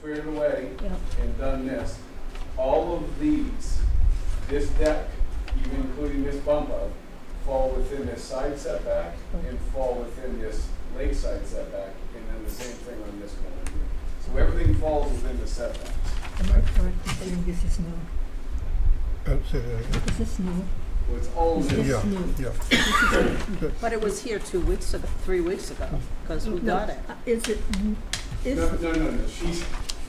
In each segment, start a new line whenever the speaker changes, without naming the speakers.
cleared away
Yeah.
and done this, all of these, this deck, even including this bump out, fall within this side setback and fall within this lakeside setback, and then the same thing on this one right here. So everything falls within the setbacks.
Am I correct in saying this is new?
Uh, say that again.
This is new.
So it's all
This
new.
is
Yeah,
new.
yeah.
But it was here two weeks ago, three weeks ago, because we
No,
got it.
uh, Is it, n- is,
No, no, no, no, she's,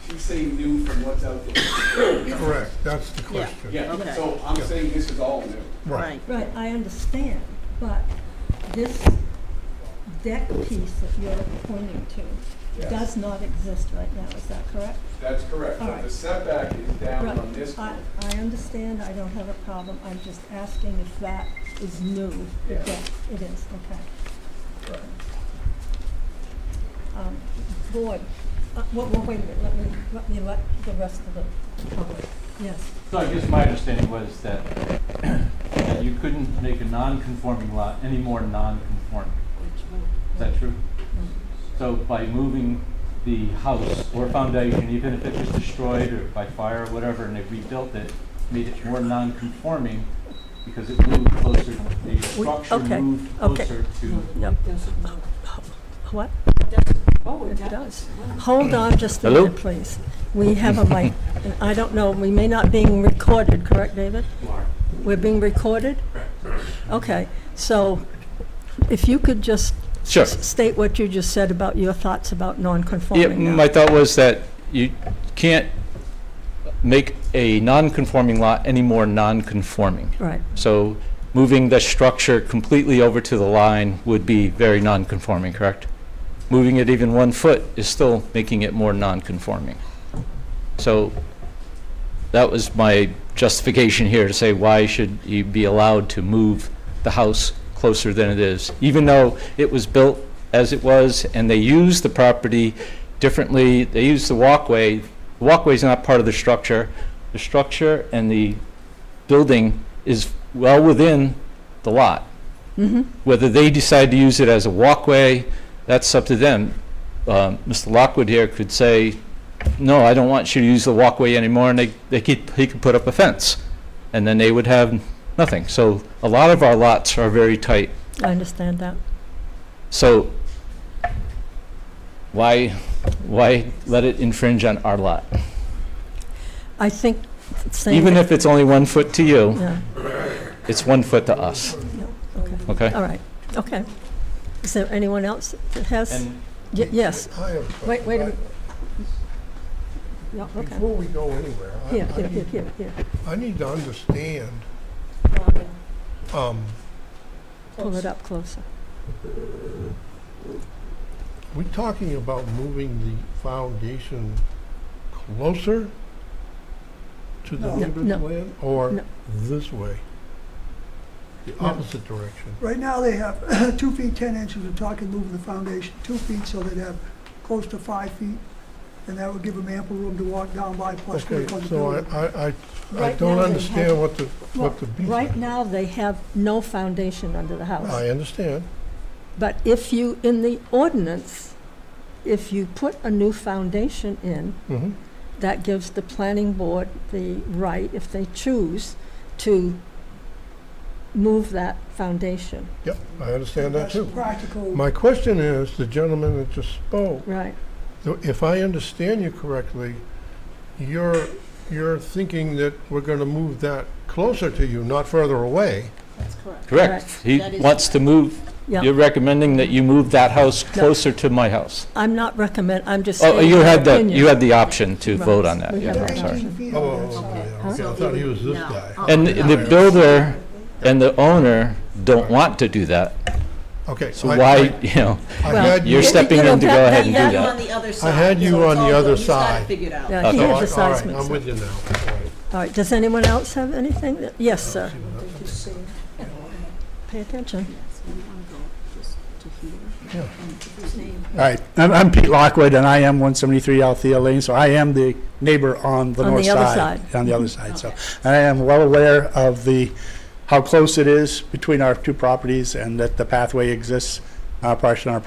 she's saying new from what's out there.
Correct, that's the question.
Yeah,
Okay.
so I'm saying this is all new.
Right.
right, I understand, but this deck piece that you're pointing to
Yes.
does not exist right now, is that correct?
That's correct,
All
but
right.
the setback is down
Right.
on this
I,
one.
I understand, I don't have a problem, I'm just asking if that is new.
Yeah.
Yes, it is, okay.
Right.
Um, Board, uh, well, well, wait a minute, let me, let me let the rest of the public, yes.
So I guess my understanding was that, that you couldn't make a non-conforming lot any more non-conforming. Is that true?
Um,
So by moving the house or foundation, even if it was destroyed or by fire or whatever, and they rebuilt it, made it more non-conforming because it moved closer, the structure
okay,
moved
okay.
closer to.
Yep. What?
Oh,
It does. Hold on just a minute, please. We have a mic, and I don't know, we may not being recorded, correct, David? We're being recorded? Okay, so if you could just
Sure.
s- state what you just said about your thoughts about
Yeah,
non-conforming now.
my thought was that you can't make a non-conforming lot any more non-conforming.
Right,
So moving the structure completely over to the line would be very non-conforming, correct? Moving it even one foot is still making it more non-conforming. So that was my justification here to say why should you be allowed to move the house closer than it is? Even though it was built as it was and they used the property differently, they used the walkway. The walkway's not part of the structure. The structure and the building is well within the lot.
Mm-hmm.
Whether they decide to use it as a walkway, that's up to them. Um, Mr. Lockwood here could say, no, I don't want you to use the walkway anymore, and they, they could, he could put up a fence, and then they would have nothing. So a lot of our lots are very tight.
I understand that.
So why, why let it infringe on our lot?
I think saying.
Even
that-
if it's only one foot to you,
Yeah,
it's one foot to us,
yeah, okay,
okay?
all right, okay. Is there anyone else that has?
And
Y- Yes,
I have a question.
Wait- wait a minute. yeah,
I-
okay.
Before we go anywhere, I-
Here,
I
here, here,
need-
here, here.
I need to understand, um,
Pull it up closer.
we're talking about moving the foundation closer to the
No.
neighbor's
No.
land? Or
No.
this way? The
No.
opposite direction?
Right now, they have two feet, 10 inches, we're talking moving the foundation two feet, so they'd have close to five feet, and that would give them ample room to walk down by, plus
Okay,
they're going to
so
build
I,
it.
I, I- I
Right now
don't
they have-
understand what the,
Well,
what the beef
right
is.
now, they have no foundation under the house.
I understand.
But if you, in the ordinance, if you put a new foundation in,
Mhm.
that gives the planning board the right, if they choose, to move that foundation,
Yep, I understand that
That's
too.
Practical.
My question is, the gentleman that just spoke,
right?
So If I understand you correctly, you're, you're thinking that we're gonna move that closer to you, not further away.
That's correct.
Correct. He
That is
wants to move,
Yeah.
you're recommending that you move that house closer to my house.
I'm not recommend, I'm just
Oh,
saying
you
my
had the,
opinion.
you had the option to
Right.
vote on that,
We
yeah,
have
I'm
that
sorry.
option.
18 feet
Oh,
on that side.
okay, okay, I thought he was this
No.
guy.
And the builder and the owner don't want to do that,
Okay.
so
I-
why, you know,
I- I
Well,
had
you're
you-
stepping in to go ahead and
You
do
had him
that.
on the other side.
had you
so it's
on the
all
other
good. He's got
side.
it figured out.
Yeah, he
Okay.
Oh, All
had the
right, all
size
right,
mixed
I'm
up.
with you now. All right.
All right, does anyone else have anything? that- Yes, sir. Pay attention.
All right, I'm- I'm Pete Lockwood, and I am 173 Althea Lane, so I am the neighbor on the
On the
north side.
other Mm-hmm.
On the other side, so I am well aware of the, how close it is between our two properties and that the pathway exists, uh, partially on our